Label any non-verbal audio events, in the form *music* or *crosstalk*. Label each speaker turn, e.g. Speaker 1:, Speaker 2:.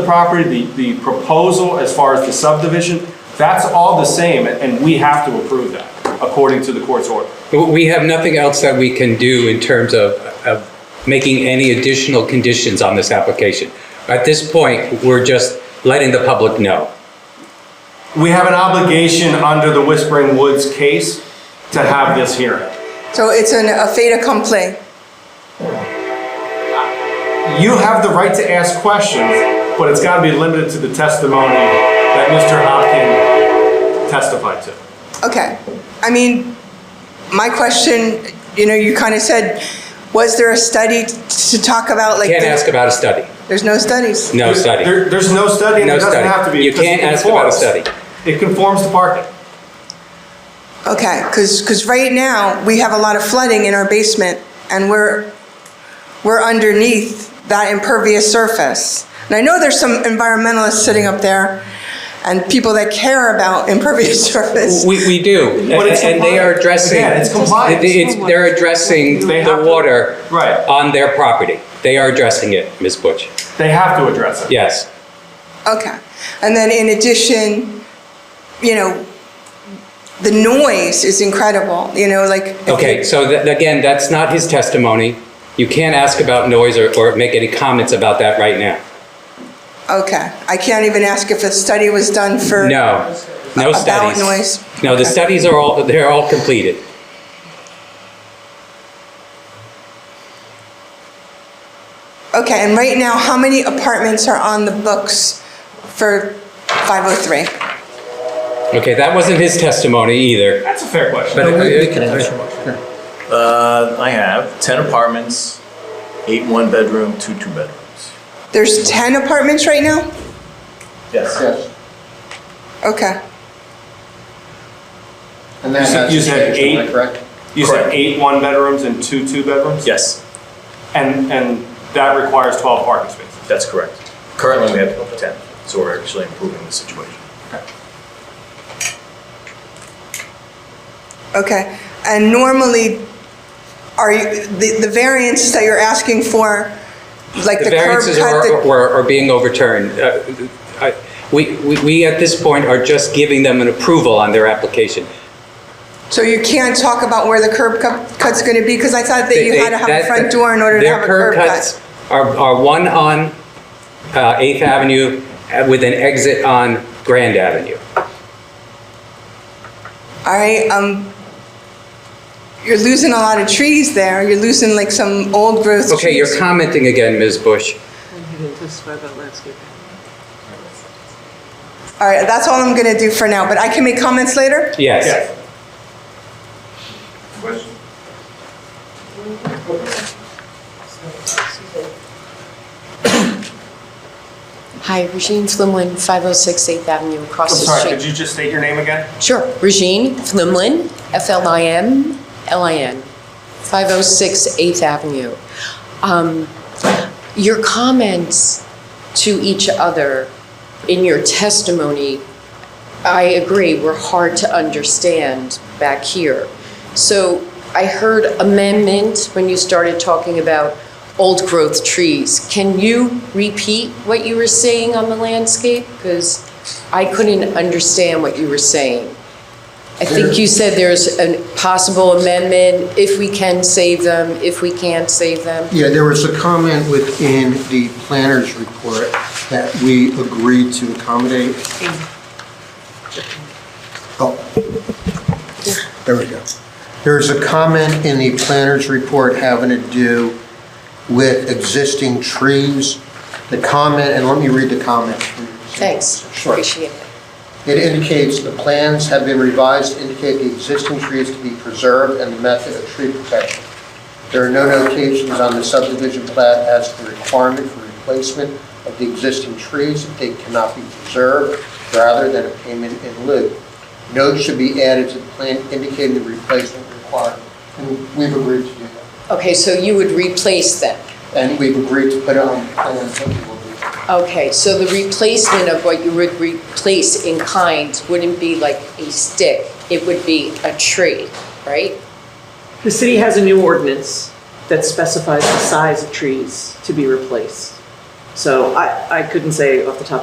Speaker 1: the property, the, the proposal as far as the subdivision, that's all the same, and we have to approve that, according to the court's order.
Speaker 2: We have nothing else that we can do in terms of, of making any additional conditions on this application. At this point, we're just letting the public know.
Speaker 1: We have an obligation under the Whispering Woods case to have this hearing.
Speaker 3: So it's an, a fait accompli.
Speaker 1: You have the right to ask questions, but it's gotta be limited to the testimony that Mr. Hopkin testified to.
Speaker 3: Okay. I mean, my question, you know, you kind of said, was there a study t- to talk about like?
Speaker 2: Can't
Speaker 3: the-
Speaker 2: ask about a study,
Speaker 3: There's no studies.
Speaker 2: no study.
Speaker 1: There, there's no study, and
Speaker 2: No
Speaker 1: it doesn't
Speaker 2: study.
Speaker 1: have to be.
Speaker 2: You
Speaker 1: because it
Speaker 2: can't ask about a
Speaker 1: conforms.
Speaker 2: study.
Speaker 1: It conforms to parking.
Speaker 3: Okay, because, because right now, we have a lot of flooding in our basement and we're, we're underneath that impervious surface. And I know there's some environmentalists sitting up there and people that care about impervious *laughs* surface.
Speaker 2: We, we do, and
Speaker 1: But it's
Speaker 2: and they are
Speaker 1: compliant.
Speaker 2: addressing.
Speaker 1: Again, it's compliant.
Speaker 2: It- it's- they're addressing
Speaker 1: They have
Speaker 2: the
Speaker 1: to-
Speaker 2: water.
Speaker 1: Right.
Speaker 2: On their property. They are addressing it, Ms. Butch.
Speaker 1: They have to address it.
Speaker 2: Yes.
Speaker 3: Okay. And then in addition, you know, the noise is incredible, you know, like.
Speaker 2: Okay, so tha- again, that's not his testimony. You can't ask about noise or, or make any comments about that right now.
Speaker 3: Okay. I can't even ask if a study was done for.
Speaker 2: No, no
Speaker 3: About
Speaker 2: studies.
Speaker 3: noise.
Speaker 2: No, the studies are all, they're all completed.
Speaker 3: Okay, and right now, how many apartments are on the books for 503?
Speaker 2: Okay, that wasn't his testimony either.
Speaker 1: That's a fair question.
Speaker 2: But
Speaker 4: Uh, I have 10 apartments, eight one-bedroom, two two-bedrooms.
Speaker 3: There's 10 apartments right now?
Speaker 4: Yes.
Speaker 5: Yes,
Speaker 3: Okay.
Speaker 1: You
Speaker 5: and that
Speaker 1: said-
Speaker 5: has
Speaker 1: you said eight?
Speaker 5: changed, am I correct?
Speaker 1: You said
Speaker 4: Correct.
Speaker 1: eight one-bedrooms and two two-bedrooms?
Speaker 4: Yes,
Speaker 1: And, and that requires 12 parking spaces.
Speaker 4: that's correct. Currently, we have over 10, so we're actually improving the situation.
Speaker 3: Okay, and normally, are you, the, the variance that you're asking for, like
Speaker 2: The
Speaker 3: the curb
Speaker 2: variances are,
Speaker 3: cut? the-
Speaker 2: were- are being overturned. Uh, I- We, we, we at this point are just giving them an approval on their application.
Speaker 3: So you can't talk about where the curb cut- cut's gonna be? Because I thought that you
Speaker 2: They-
Speaker 3: had to have a
Speaker 2: that-
Speaker 3: front door in order to
Speaker 2: their
Speaker 3: have a curb
Speaker 2: cuts
Speaker 3: cut.
Speaker 2: Are, are one on uh, Eighth Avenue uh, with an exit on Grand Avenue.
Speaker 3: All right, um, you're losing a lot of trees there, you're losing like some old growth trees.
Speaker 2: Okay, you're commenting again, Ms. Bush.
Speaker 6: And he didn't testify about landscaping.
Speaker 3: All right, that's all I'm gonna do for now, but I can make comments later?
Speaker 2: Yes.
Speaker 7: Hi, Regine Flimlin, 506 8th Avenue,
Speaker 1: I'm
Speaker 7: across the
Speaker 1: sorry, could
Speaker 7: street.
Speaker 1: you just state your name again?
Speaker 7: Sure, Regine Flimlin, F-L-I-M-L-I-N, 506 8th oh Avenue. Um, Your comments to each other in your testimony, I agree, were hard to understand back here. So I heard amendment when you started talking about old growth trees. Can you repeat what you were saying on the landscape? Because I couldn't understand what you were saying. I think you said there's a possible amendment, if we can save them, if we can't save them.
Speaker 5: Yeah, there was a comment within the planner's report that we agreed to accommodate. Oh, there we go. There's a comment in the planner's report having to do with existing trees. The comment, and let me read the comment.
Speaker 7: Thanks,
Speaker 5: Sure.
Speaker 7: appreciate it.
Speaker 5: It indicates the plans have been revised to indicate the existing trees to be preserved and the method of tree protection. There are no notations on the subdivision plat as to the requirement for replacement of the existing trees if they cannot be preserved rather than a payment in lieu. Notes should be added to the plan indicating the replacement requirement. And we've agreed to do that.
Speaker 7: Okay, so you would replace them?
Speaker 5: And we've agreed to put it on the plan. so we will do that.
Speaker 7: Okay, so the replacement of what you would replace in kind wouldn't be like a stick, it would be a tree, right?
Speaker 6: The city has a new ordinance that specifies the size of trees to be replaced. So I, I couldn't say off the top